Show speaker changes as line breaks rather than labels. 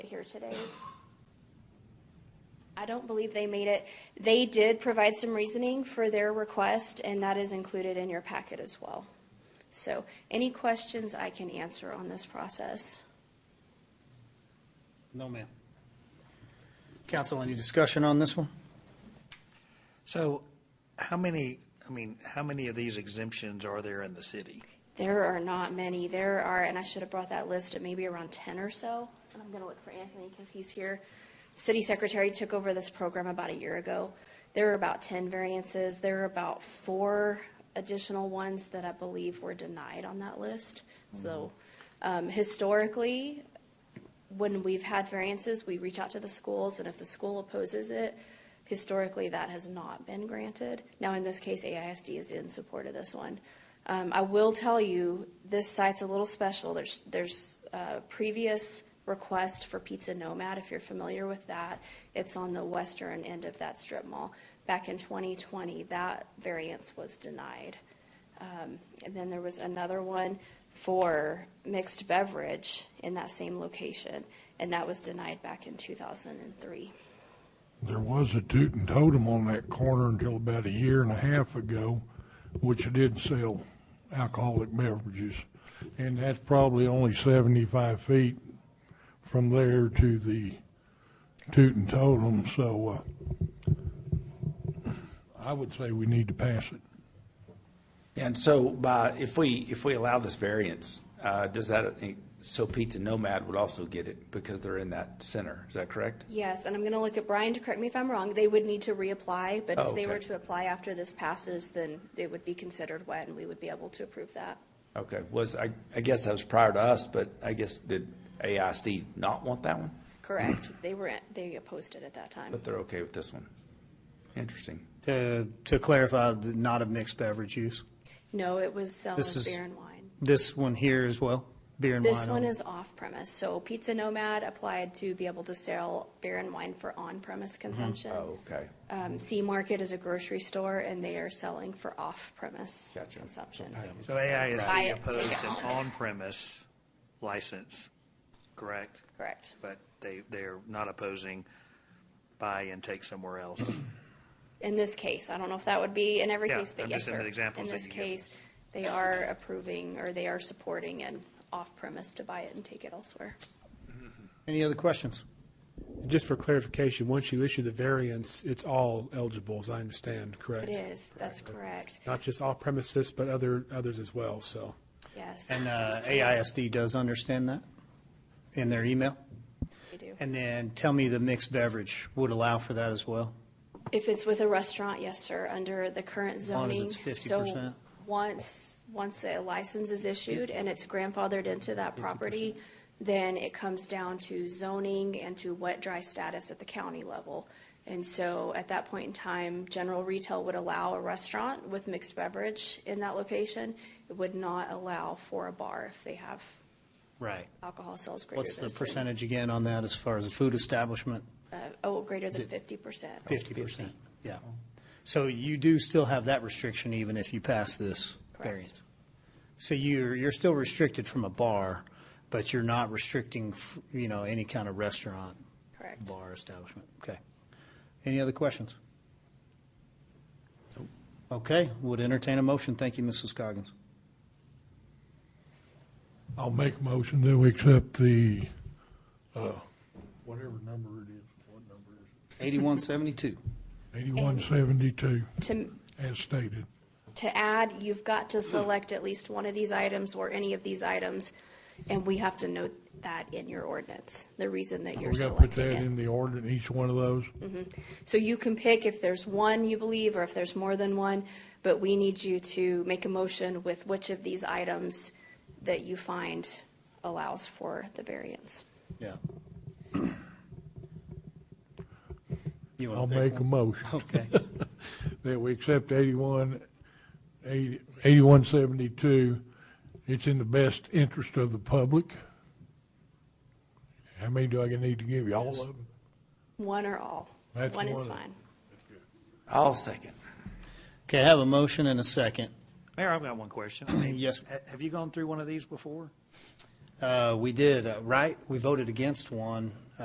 here today. I don't believe they made it. They did provide some reasoning for their request, and that is included in your packet as well. So any questions I can answer on this process?
No, ma'am. Council, any discussion on this one?
So how many, I mean, how many of these exemptions are there in the city?
There are not many. There are, and I should have brought that list at maybe around 10 or so. And I'm going to look for Anthony because he's here. City Secretary took over this program about a year ago. There were about 10 variances. There are about four additional ones that I believe were denied on that list. So um, historically, when we've had variances, we reach out to the schools, and if the school opposes it, historically, that has not been granted. Now, in this case, AISD is in support of this one. Um, I will tell you, this site's a little special. There's, there's uh previous request for Pizza Nomad, if you're familiar with that. It's on the western end of that strip mall. Back in 2020, that variance was denied. Um, And then there was another one for mixed beverage in that same location, and that was denied back in 2003.
There was a toot and totem on that corner until about a year and a half ago, which did sell alcoholic beverages. And that's probably only 75 feet from there to the toot and totem, so uh, I would say we need to pass it.
And so by, if we, if we allow this variance, uh, does that, so Pizza Nomad would also get it because they're in that center, is that correct?
Yes, and I'm going to look at Brian to correct me if I'm wrong. They would need to reapply, but
Oh,
if they were
okay.
to apply after this passes, then it would be considered wet, and we would be able to approve that.
Okay, was, I, I guess that was prior to us, but I guess did AISD not want that one?
Correct. They were, they opposed it at that time.
But they're okay with this one? Interesting.
To, to clarify, the- not a mixed beverage use.
No, it was selling
This is-
beer and wine.
This one here as well, beer and wine.
This one
only.
is off premise. So Pizza Nomad applied to be able to sell beer and wine for on premise consumption.
Oh, okay.
Um, C Market is a grocery store and they are selling for off premise
Gotcha.
consumption.
So AISD
Right. Take it
opposed an
on.
on-premise license, correct?
Correct.
But they, they're not opposing buy and take somewhere else.
In this case, I don't know if that would be in every
Yeah,
case, but
I'm
yes,
just in
sir.
the examples
In
that
this
you give
case, they are approving or they are supporting an off premise to buy it and take it elsewhere.
Any other questions?
Just for clarification, once you issue the variance, it's all eligible, as I understand, correct?
It is, that's correct.
Not just off premises, but other, others as well, so.
Yes,
And uh, AISD does understand that in their email?
they do.
And then tell me the mixed beverage would allow for that as well?
If it's with a restaurant, yes, sir, under the current
long as
zoning.
it's 50%.
So once, once a license is issued and it's grandfathered into that property, then it comes down to zoning and to wet, dry status at the county level. And so at that point in time, general retail would allow a restaurant with mixed beverage in that location. It would not allow for a bar if they have
Right.
alcohol sales greater than.
What's the
a certain-
percentage again on that as far as a food establishment?
uh, Oh, greater than
it-
fifty percent.
Fifty percent, yeah. So you do still have that restriction even if you pass this
Correct.
variance? So you're, you're still restricted from a bar, but you're not restricting, f- you know, any kind of restaurant?
Correct.
Bar establishment, okay. Any other questions? Okay, would entertain a motion. Thank you, Mrs. Coggins.
I'll make a motion that we accept the, uh, whatever number it is, what number is
Eighty-one seventy-two.
it? 8172,
To,
as stated.
to add, you've got to select at least one of these items or any of these items, and we have to note that in your ordinance, the reason that you're
We gotta put
selecting
that in
it.
the ordinance, each one of those?
So you can pick if there's one you believe, or if there's more than one, but we need you to make a motion with which of these items that you find allows for the variance.
Yeah. You wanna
I'll
pick
make a
one?
motion.
Okay,
that we accept 81, 80 8172. It's in the best interest of the public. How many do I need to give you? All of them?
One or all?
That's
One is
one.
fine.
I'll second.
okay, I have a motion and a second.
Mayor, I've got one question. I mean,
Yes.
ha- Have you gone through one of these before?
Uh, We did, uh, right? We voted against one